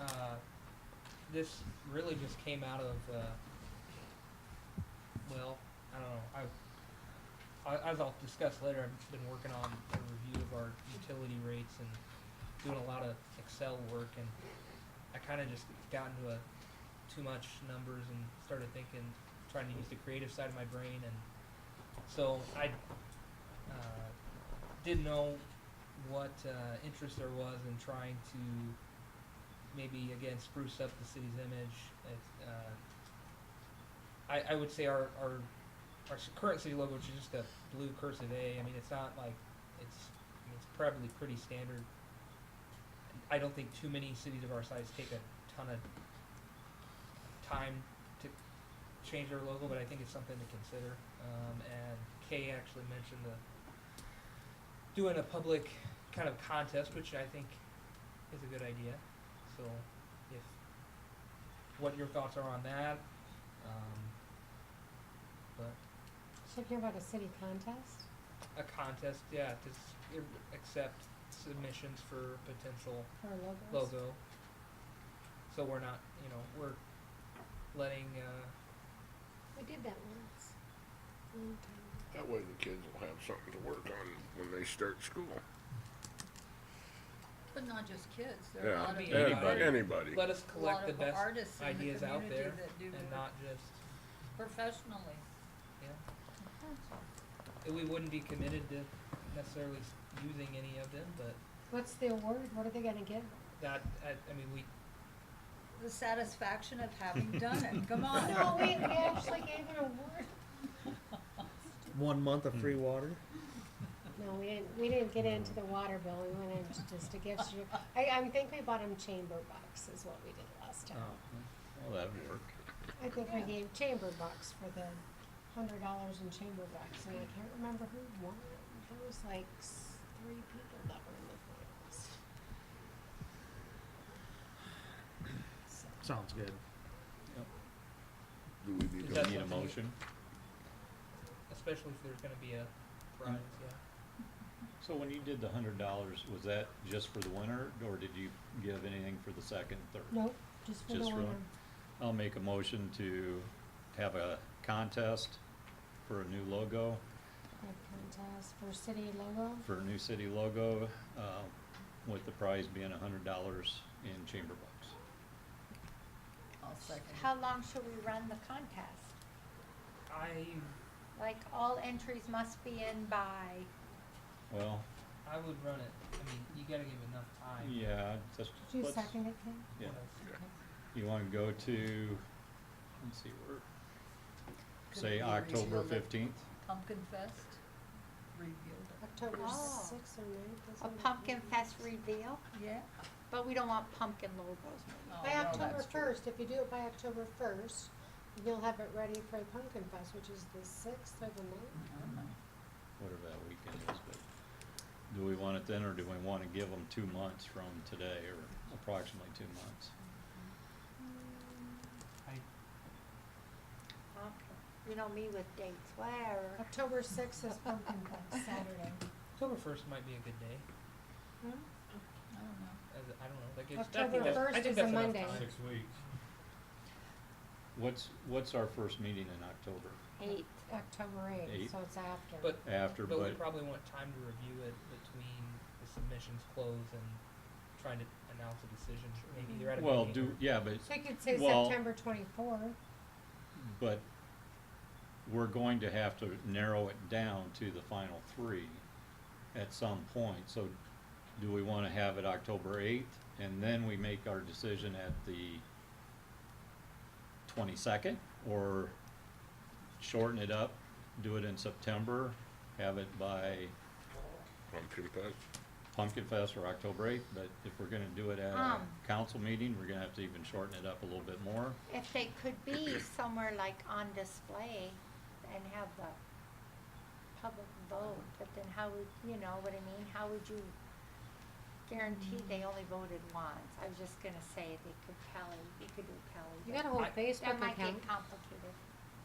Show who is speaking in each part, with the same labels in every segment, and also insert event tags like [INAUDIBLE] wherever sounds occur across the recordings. Speaker 1: uh, this really just came out of, uh, well, I don't know, I, I, as I'll discuss later, I've been working on a review of our utility rates and doing a lot of Excel work, and I kinda just got into a, too much numbers and started thinking, trying to use the creative side of my brain, and so I, uh, didn't know what, uh, interest there was in trying to, maybe again spruce up the city's image. It, uh, I, I would say our, our our s- current city logo, which is just a blue cursive A. I mean, it's not like it's I mean, it's probably pretty standard. I don't think too many cities of our size take a ton of time to change their logo, but I think it's something to consider. Um, and Kay actually mentioned the doing a public kind of contest, which I think is a good idea. So, if what your thoughts are on that, um, but
Speaker 2: Should I hear about a city contest?
Speaker 1: a contest, yeah, to s- i- accept submissions for potential
Speaker 2: Or logos?
Speaker 1: logo. So we're not, you know, we're letting, uh,
Speaker 2: We did that once. Long time ago.
Speaker 3: That way the kids will have something to work on when they start school.
Speaker 4: But not just kids, there are a
Speaker 3: Yeah,
Speaker 4: lot of.
Speaker 1: mean,
Speaker 4: people
Speaker 3: anybody,
Speaker 4: that-
Speaker 3: anybody.
Speaker 1: let us
Speaker 4: a lot
Speaker 1: collect the
Speaker 4: of
Speaker 1: best
Speaker 4: artists in the
Speaker 1: ideas out
Speaker 4: community
Speaker 1: there
Speaker 4: that do
Speaker 1: and
Speaker 4: work
Speaker 1: not just,
Speaker 4: Professionally.
Speaker 1: yeah. And We wouldn't be committed to necessarily s- using any of them, but
Speaker 2: What's the award? What are they gonna [LAUGHS] give?
Speaker 1: that, I, I mean, we,
Speaker 4: The satisfaction of having done it, come on.
Speaker 2: Oh, No, we, we actually gave an award.
Speaker 5: One month of free water.
Speaker 2: No, we didn't, we didn't get into the water bill. We went into just a gift shop. I, I think we bought them chamber bucks is what we did last time.
Speaker 5: Oh,
Speaker 6: Well, that'd work.
Speaker 2: I think we
Speaker 4: Yeah.
Speaker 2: gave chamber bucks for the hundred dollars in chamber bucks and I can't remember who won. There was like s- three people that were in the finals. So.
Speaker 5: Sounds good.
Speaker 3: Do we
Speaker 1: Is
Speaker 3: need to,
Speaker 1: that
Speaker 6: Need a
Speaker 1: something you-
Speaker 6: motion?
Speaker 1: especially if there's gonna be a prize, yeah.
Speaker 6: So when you did the hundred dollars, was that just for the winner, or did you give anything for the second, third?
Speaker 2: Nope, just for the
Speaker 6: Just for
Speaker 2: winner.
Speaker 6: one? I'll make a motion to have a contest for a new logo,
Speaker 2: A contest for city logo.
Speaker 6: for a new city logo, uh, with the prize being a hundred dollars in chamber bucks.
Speaker 4: I'll second it.
Speaker 7: How long shall we run the contest?
Speaker 1: I
Speaker 7: Like, all entries must be in by,
Speaker 6: Well,
Speaker 1: I would run it. I mean, you gotta give it enough time.
Speaker 6: yeah, just,
Speaker 2: Did you
Speaker 6: let's,
Speaker 2: second it, Kim?
Speaker 6: yeah,
Speaker 1: Let's-
Speaker 6: you wanna go to, let's see, where,
Speaker 4: Could it
Speaker 6: say
Speaker 4: be
Speaker 6: October
Speaker 4: revealed at
Speaker 6: fifteenth?
Speaker 4: Pumpkin Fest, revealed it.
Speaker 2: October
Speaker 7: Oh.
Speaker 2: sixth or ninth? is
Speaker 7: a
Speaker 2: it?
Speaker 7: pumpkin fest reveal,
Speaker 4: Yeah?
Speaker 7: but we don't want pumpkin logos.
Speaker 4: Oh,
Speaker 2: By
Speaker 4: no,
Speaker 2: October
Speaker 4: that's true.
Speaker 2: first, if you do it by October first, you'll have it ready for Pumpkin Fest, which is the sixth or the ninth.
Speaker 4: I don't know.
Speaker 6: whatever that weekend is, but do we want it then, or do we wanna give them two months from today, or approximately two months?
Speaker 1: I,
Speaker 7: Okay. You know me with dates, where?
Speaker 2: October sixth is Pumpkin Fest, Saturday.
Speaker 1: October first might be a good day.
Speaker 2: Hmm?
Speaker 4: I don't know.
Speaker 1: As, I don't know. That gives, I
Speaker 2: October
Speaker 1: think that's, I
Speaker 2: 1st
Speaker 1: think
Speaker 2: is
Speaker 1: that's
Speaker 2: a
Speaker 1: enough
Speaker 2: Monday.
Speaker 1: time.
Speaker 8: weeks.
Speaker 6: What's, what's our first meeting in October?
Speaker 7: Eight.
Speaker 2: October eighth,
Speaker 6: Eight.
Speaker 2: so it's after.
Speaker 1: But
Speaker 6: After,
Speaker 1: but we
Speaker 6: but,
Speaker 1: probably want time to review it between the submissions close and trying to announce a decision. Maybe
Speaker 2: Mm-hmm.
Speaker 1: either at a
Speaker 6: well,
Speaker 1: meeting
Speaker 6: do,
Speaker 1: or-
Speaker 6: yeah, but,
Speaker 2: So you could say
Speaker 6: Well-
Speaker 2: September twenty-fourth.
Speaker 6: but we're going to have to narrow it down to the final three at some point, so do we wanna have it October eighth, and then we make our decision at the twenty-second, or shorten it up, do it in September, have it by
Speaker 3: pumpkin patch?
Speaker 6: Pumpkin Fest or October eighth, but if we're gonna do it at a
Speaker 7: Um.
Speaker 6: council meeting, we're gonna have to even shorten it up a little bit more.
Speaker 7: If they could be somewhere like on display and have the public vote, but then how would, you know what I mean, how would you guarantee
Speaker 2: Mm.
Speaker 7: they only voted once? I was just gonna say they could tally, you could do tally.
Speaker 2: You
Speaker 7: but-
Speaker 2: got a whole
Speaker 1: I-
Speaker 2: Facebook
Speaker 7: That might
Speaker 2: account.
Speaker 7: get complicated.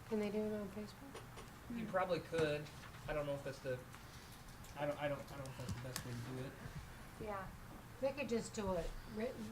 Speaker 2: Can they do it on Facebook?
Speaker 1: You probably could. I don't know if that's the. I don't. I don't. I don't know if that's the best way to do it.
Speaker 7: Yeah.
Speaker 2: They could just do it written